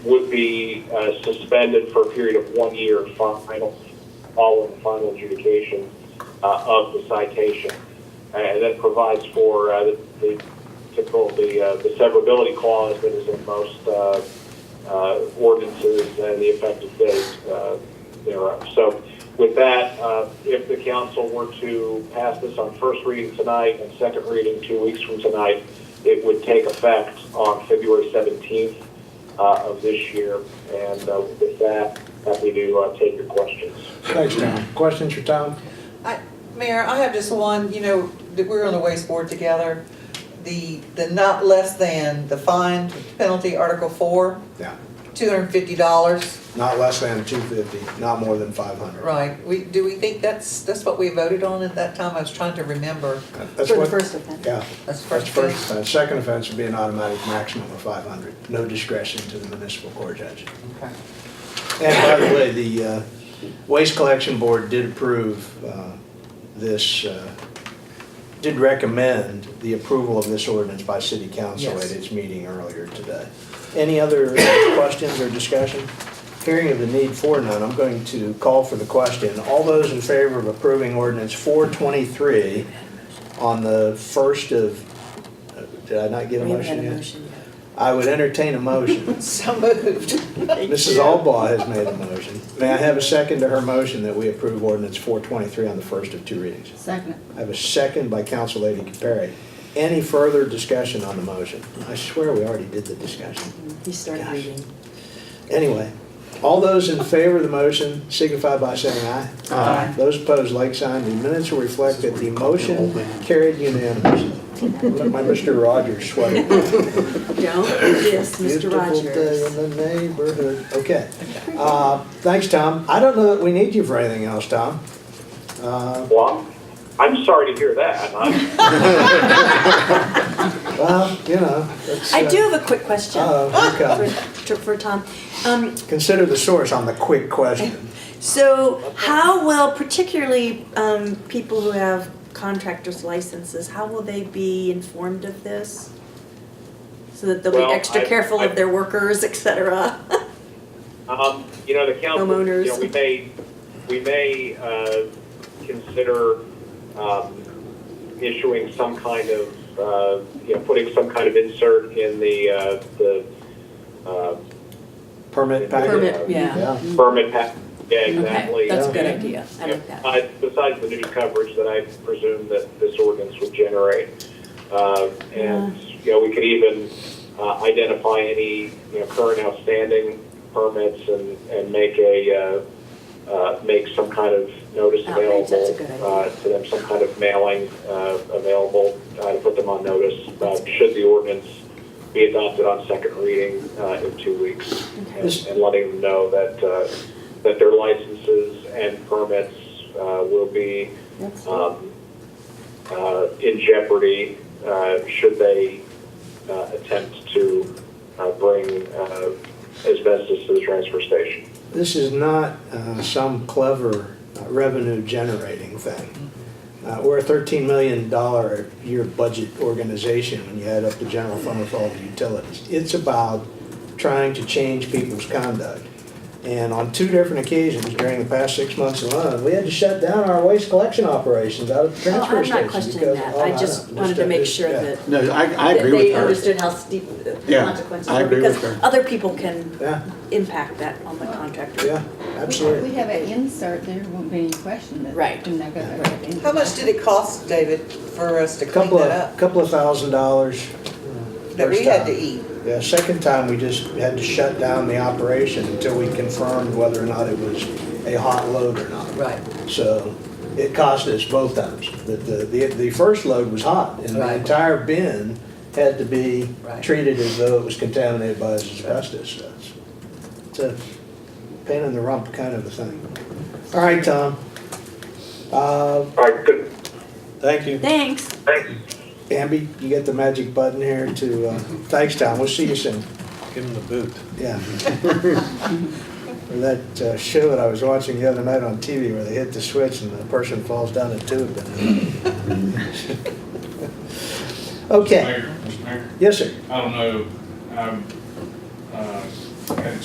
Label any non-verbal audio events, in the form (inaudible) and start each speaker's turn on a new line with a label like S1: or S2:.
S1: would be uh, suspended for a period of one year final, all in final adjudication uh, of the citation. And that provides for uh, the- the typical, the uh, the severability clause that is in most uh, uh, ordinances and the effective date uh, thereof. So with that, uh, if the council were to pass this on first reading tonight and second reading two weeks from tonight, it would take effect on February 17th uh, of this year. And uh, with that, happy to uh, take your questions.
S2: Thanks, Tom. Questions for Tom?
S3: I, Mayor, I have just one, you know, that we were on the waste board together. The, the not less than, the fine penalty, Article four,
S2: Yeah.
S3: two hundred and fifty dollars.
S2: Not less than two fifty, not more than five hundred.
S3: Right, we, do we think that's, that's what we voted on at that time? I was trying to remember.
S2: That's
S4: For the
S2: what-
S4: first offense.
S2: Yeah.
S3: That's
S2: That's
S3: first
S2: first
S3: thing.
S2: offense. Second offense would be an automatic maximum of five hundred. No discretion to the municipal court judge.
S3: Okay.
S2: And by the way, the uh, Waste Collection Board did approve uh, this, uh, did recommend the approval of this ordinance by city council
S3: Yes.
S2: at its meeting earlier today. Any other questions or discussion? Hearing of the need for none, I'm going to call for the question. All those in favor of approving ordinance 423 on the first of, uh, did I not get a
S4: We haven't had
S2: motion
S4: a
S2: yet?
S4: motion yet.
S2: I would entertain a motion.
S3: So moved.
S2: Mrs. Albaugh has made a motion. May I have a second to her motion that we approve ordinance 423 on the first of two readings?
S4: Second.
S2: I have a second by Council Lady Capari. Any further discussion on the motion? I swear we already did the discussion.
S4: He started
S2: Gosh.
S4: reading.
S2: Anyway, all those in favor of the motion signify by saying aye.
S5: Uh,
S4: Aye.
S2: Those opposed, like sign. The minutes will reflect that the motion carried unanimously. Look at my Mr. Rogers sweater.
S4: Don't diss Mr. Rogers.
S2: Beautiful day in the neighborhood. Okay. Uh, Thanks, Tom. I don't know that we need you for anything else, Tom. Uh,
S1: Well, I'm sorry to hear
S5: (laughs)
S1: that. Um, I'm-
S2: Well, you know. it's,
S4: I
S2: uh,
S4: do have a quick question
S2: Oh, okay.
S4: for, for Tom. Um,
S2: Consider the source on the quick question.
S4: So how will, particularly um, people who have contractor's licenses, how will they be informed of this? So that they'll
S1: Well,
S4: be extra
S1: I-
S4: careful
S1: I-
S4: of their workers, et cetera?
S1: Um, you know, the council, you
S4: Homeowners.
S1: know, we may, we may, uh, consider, um, issuing some kind of, uh, you know, putting some kind of insert in the, uh, the, uh,
S2: Permit package?
S5: Permit, yeah. Mm-hmm.
S2: Yeah.
S1: permit pack, yeah,
S5: Okay,
S1: exactly.
S5: that's a
S2: yeah.
S5: good idea. I like that.
S1: Uh, Besides the news coverage that I presume that this ordinance would generate. Uh, And, you know, we could even uh, identify any, you know, current outstanding permits and, and make a, uh, uh, make some kind of notice
S4: Outreach,
S1: available.
S4: that's a good idea.
S1: uh, To them, some kind of mailing uh, available uh, to put them on notice, uh, should the ordinance be adopted on second reading uh, in two weeks. And
S2: Is-
S1: and letting them know that, uh, that their licenses and permits uh, will be um, uh, in jeopardy uh, should they uh, attempt to uh, bring uh, asbestos to the transfer station.
S2: This is not uh, some clever uh, revenue generating thing. Uh, We're a $13 million a year budget organization when you add up the general fund with all the utilities. It's about trying to change people's conduct. And on two different occasions during the past six months alone, we had to shut down our waste collection operations out of the
S4: Oh,
S2: transfer
S4: I'm
S2: station.
S4: not questioning
S2: because-
S4: that.
S2: oh,
S4: I
S2: don't-
S4: just wanted to make
S2: just-
S4: sure
S2: yeah.
S4: that
S5: No, I, I
S4: that
S5: agree with
S4: they
S5: her.
S4: understood how steep the
S5: Yeah,
S4: consequences
S5: I
S4: were,
S5: agree with
S4: because
S5: her.
S4: other people can
S2: Yeah,
S4: impact that on the contractor.
S2: yeah, absolutely.
S6: We have an insert, there won't be any question that.
S5: Right.
S6: we're not gonna have any-
S3: How much did it cost, David, for us to clean
S2: Couple
S3: that
S2: of,
S3: up?
S2: couple of thousand dollars.
S3: That we
S2: first
S3: had to
S2: time.
S3: eat?
S2: Yeah, second time, we just had to shut down the operation until we confirmed whether or not it was a hot load or not.
S3: Right.
S2: So it cost us both times. But the, the, the first load was hot, and the
S3: Right.
S2: entire bin had to be
S3: Right.
S2: treated as though it was contaminated by asbestos. So it's- It's a pain in the rump kind of a thing. All right, Tom. Uh,
S1: All right, good.
S2: Thank you.
S4: Thanks.
S2: Bambi, you get the magic button here to, uh, thanks, Tom, we'll see you soon.
S7: Give him the boot.
S2: Yeah. Or That uh, show that I was watching the other night on TV where they hit the switch and the person falls down a tube. Okay,
S8: Mayor, Mr. Mayor,
S2: yes, sir.
S8: I don't know, I'm, uh, Okay.